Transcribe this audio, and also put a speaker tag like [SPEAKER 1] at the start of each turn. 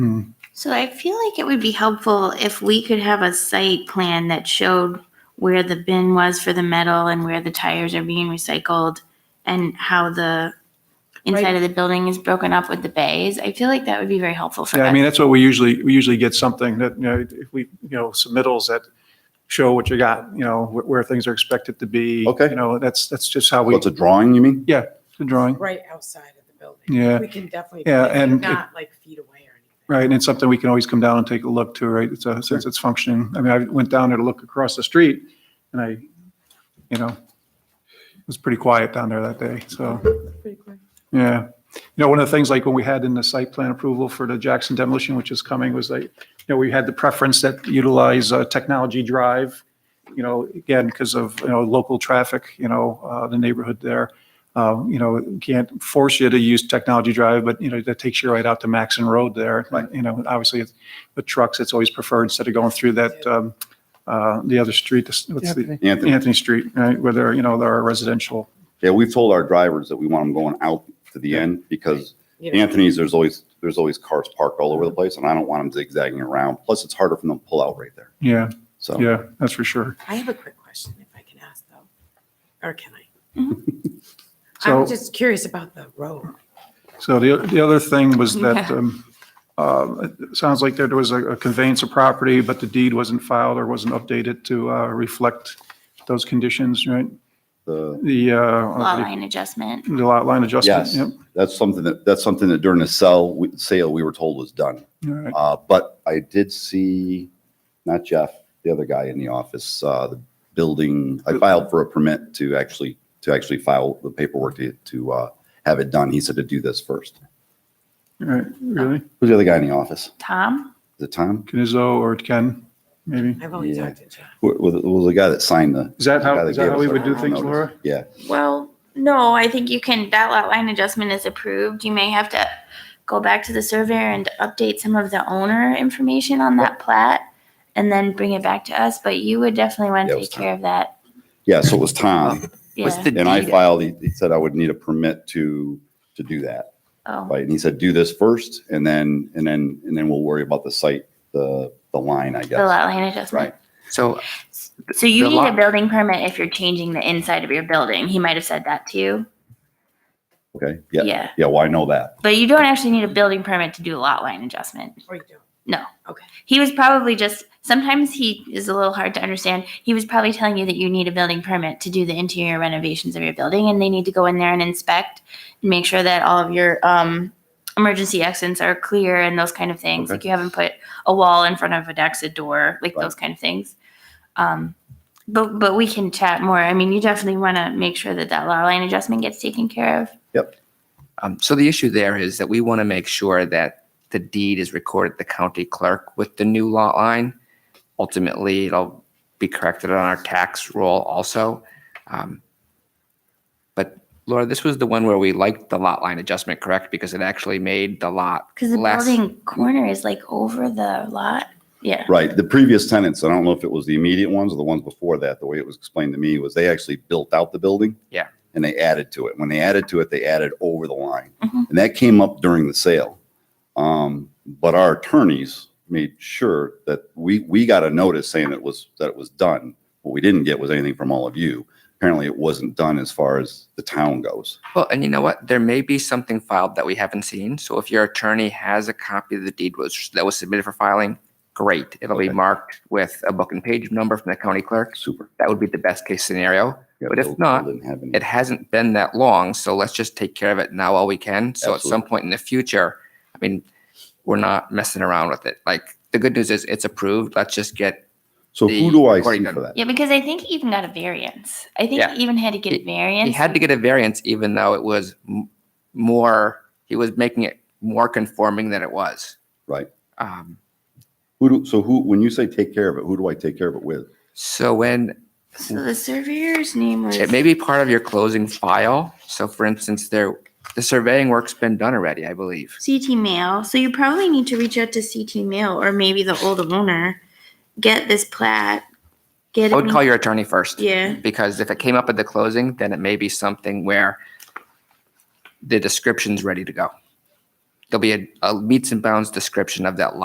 [SPEAKER 1] Hmm.
[SPEAKER 2] So I feel like it would be helpful if we could have a site plan that showed where the bin was for the metal and where the tires are being recycled and how the inside
[SPEAKER 3] Right.
[SPEAKER 2] of the building is broken up with the bays. I feel like that would be very helpful for
[SPEAKER 1] Yeah, I
[SPEAKER 2] us.
[SPEAKER 1] mean, that's what we usually, we usually get something that, you know, if we, you know, submittals that show what you got, you know, wh- where things are expected to be.
[SPEAKER 4] Okay.
[SPEAKER 1] You know, that's, that's just how we,
[SPEAKER 4] What's a drawing, you mean?
[SPEAKER 1] yeah, the drawing,
[SPEAKER 3] right outside of the building.
[SPEAKER 1] Yeah.
[SPEAKER 3] We can definitely.
[SPEAKER 1] Yeah,
[SPEAKER 3] put it,
[SPEAKER 1] and it-
[SPEAKER 3] Not like feet away or anything.
[SPEAKER 1] right? And it's something we can always come down and take a look to, right? It's a, since it's functioning. I mean, I went down there to look across the street and I, you know, it was pretty quiet down there that day, so.
[SPEAKER 3] Pretty quick.
[SPEAKER 1] Yeah. You know, one of the things like when we had in the site plan approval for the Jackson demolition, which is coming, was like, you know, we had the preference that utilize uh, technology drive, you know, again, because of, you know, local traffic, you know, uh, the neighborhood there. Um, You know, can't force you to use technology drive, but, you know, that takes you right out to Maxon Road there. But, You know, obviously, it's- with trucks, it's always preferred instead of going through that, um, uh, the other street, this- what's the,
[SPEAKER 4] Anthony,
[SPEAKER 1] Anthony Street, right, where there, you know, there are residential
[SPEAKER 4] yeah, we've told our drivers that we want them going out to the end because
[SPEAKER 3] You know,
[SPEAKER 4] Anthony's, there's always, there's always cars parked all over the place and I don't want them zigzagging around. Plus, it's harder for them to pull out right there.
[SPEAKER 1] Yeah,
[SPEAKER 4] So.
[SPEAKER 1] yeah, that's for sure.
[SPEAKER 3] I have a quick question if I can ask though, or can I?
[SPEAKER 2] Mhm.
[SPEAKER 1] So-
[SPEAKER 3] I'm just curious about the road.
[SPEAKER 1] So the, the other thing was that, um, uh, it sounds like there was a a conveyance of property, but the deed wasn't filed or wasn't updated to, uh, reflect those conditions, right?
[SPEAKER 4] The,
[SPEAKER 1] The,
[SPEAKER 2] Lot
[SPEAKER 1] uh,
[SPEAKER 2] line adjustment.
[SPEAKER 1] the lot line adjustment?
[SPEAKER 4] Yes.
[SPEAKER 1] Yep,
[SPEAKER 4] that's something that, that's something that during the sell, we- sale, we were told was done.
[SPEAKER 1] all right.
[SPEAKER 4] Uh, but I did see, not Jeff, the other guy in the office, uh, the building, I filed for a permit to actually, to actually file the paperwork to, to, uh, have it done. He said to do this first.
[SPEAKER 1] All right, really?
[SPEAKER 4] Who's the other guy in the office?
[SPEAKER 2] Tom?
[SPEAKER 4] Is it Tom?
[SPEAKER 1] Canizzo or Ken, maybe?
[SPEAKER 3] I've only
[SPEAKER 4] Yeah.
[SPEAKER 3] talked to John.
[SPEAKER 4] Who- Was, was the guy that signed the?
[SPEAKER 1] Is that
[SPEAKER 4] the guy
[SPEAKER 1] how, is that
[SPEAKER 4] gave
[SPEAKER 1] how
[SPEAKER 4] us
[SPEAKER 1] we
[SPEAKER 4] our
[SPEAKER 1] would do things,
[SPEAKER 4] notice?
[SPEAKER 1] Laura?
[SPEAKER 4] Yeah,
[SPEAKER 2] Well, no, I think you can, that lot line adjustment is approved. You may have to go back to the surveyor and update some of the owner information on that plat and then bring it back to us, but you would definitely want
[SPEAKER 4] Yeah,
[SPEAKER 2] to
[SPEAKER 4] it was
[SPEAKER 2] take care of that.
[SPEAKER 4] yeah, so it was Tom,
[SPEAKER 5] Was
[SPEAKER 2] Yeah.
[SPEAKER 5] the
[SPEAKER 4] and I
[SPEAKER 5] deed-
[SPEAKER 4] filed, he he said I would need a permit to, to do that,
[SPEAKER 2] Oh,
[SPEAKER 4] right? And he said, do this first, and then, and then, and then we'll worry about the site, the, the line, I
[SPEAKER 2] the
[SPEAKER 4] guess,
[SPEAKER 2] lot line adjustment.
[SPEAKER 4] right?
[SPEAKER 5] So
[SPEAKER 2] So you
[SPEAKER 5] The
[SPEAKER 2] need a
[SPEAKER 5] lot-
[SPEAKER 2] building permit if you're changing the inside of your building. He might have said that to you.
[SPEAKER 4] Okay, yeah,
[SPEAKER 2] Yeah.
[SPEAKER 4] yeah, well, I know that,
[SPEAKER 2] But you don't actually need a building permit to do a lot line adjustment.
[SPEAKER 3] Or you don't.
[SPEAKER 2] He was probably just, sometimes he is a little hard to understand. He was probably telling you that you need a building permit to do the interior renovations of your building and they need to go in there and inspect and make sure that all of your um, emergency exits are clear and those kind of things.
[SPEAKER 4] Okay.
[SPEAKER 2] Like you haven't put a wall in front of a dex, a door, like
[SPEAKER 4] Right.
[SPEAKER 2] those kind of things. Um, but, but we can chat more. I mean, you definitely want to make sure that that lot line adjustment gets taken care of.
[SPEAKER 5] Um, So the issue there is that we want to make sure that the deed is recorded at the county clerk with the new lot line. Ultimately, it'll be corrected on our tax roll also. Um, But Laura, this was the one where we liked the lot line adjustment, correct? Because it actually made the lot
[SPEAKER 2] Because the
[SPEAKER 5] less.
[SPEAKER 2] building corner is like over the lot. Yeah.
[SPEAKER 4] right? The previous tenants, I don't know if it was the immediate ones or the ones before that, the way it was explained to me was they actually built out the building.
[SPEAKER 5] Yeah.
[SPEAKER 4] And they added to it. When they added to it, they added over the line.
[SPEAKER 5] Mm-hmm.
[SPEAKER 2] Mhm.
[SPEAKER 4] And that came up during the sale. Um, but our attorneys made sure that we, we got a notice saying it was, that it was done. What we didn't get was anything from all of you. Apparently it wasn't done as far as the town goes.
[SPEAKER 5] Well, and you know what? There may be something filed that we haven't seen. So if your attorney has a copy of the deed was, that was submitted for filing, great. It'll be
[SPEAKER 4] Okay.
[SPEAKER 5] marked with a book and page number from the county clerk.
[SPEAKER 4] Super.
[SPEAKER 5] That would be the best case scenario.
[SPEAKER 4] Yeah,
[SPEAKER 5] But if
[SPEAKER 4] Bill- Bill
[SPEAKER 5] not,
[SPEAKER 4] didn't have any-
[SPEAKER 5] It hasn't been that long, so let's just take care of it now while we can. So at some
[SPEAKER 4] Absolutely.
[SPEAKER 5] point in the future, I mean, we're not messing around with it. Like, the good news is it's approved. Let's just get,
[SPEAKER 4] So
[SPEAKER 5] the
[SPEAKER 4] who do I see
[SPEAKER 5] recording
[SPEAKER 4] for that?
[SPEAKER 2] Yeah, because I think he even got a variance. I think
[SPEAKER 5] Yeah.
[SPEAKER 2] he even had to get a
[SPEAKER 5] He-
[SPEAKER 2] variance.
[SPEAKER 5] he had to get a variance even though it was m- more, he was making it more conforming than it was.
[SPEAKER 4] Right.
[SPEAKER 5] Um,
[SPEAKER 4] Who do, so who, when you say take care of it, who do I take care of it with?
[SPEAKER 5] So when
[SPEAKER 2] so the surveyor's name was.
[SPEAKER 5] it may be part of your closing file. So for instance, there, the surveying work's been done already, I believe.
[SPEAKER 2] CT Mail. So you probably need to reach out to CT Mail or maybe the old owner. Get this plat. Get
[SPEAKER 5] I would
[SPEAKER 2] it.
[SPEAKER 5] call your attorney first.
[SPEAKER 2] Yeah.
[SPEAKER 5] Because if it came up at the closing, then it may be something where the description's ready to go. there'll be a, a meets and bounds description of that lot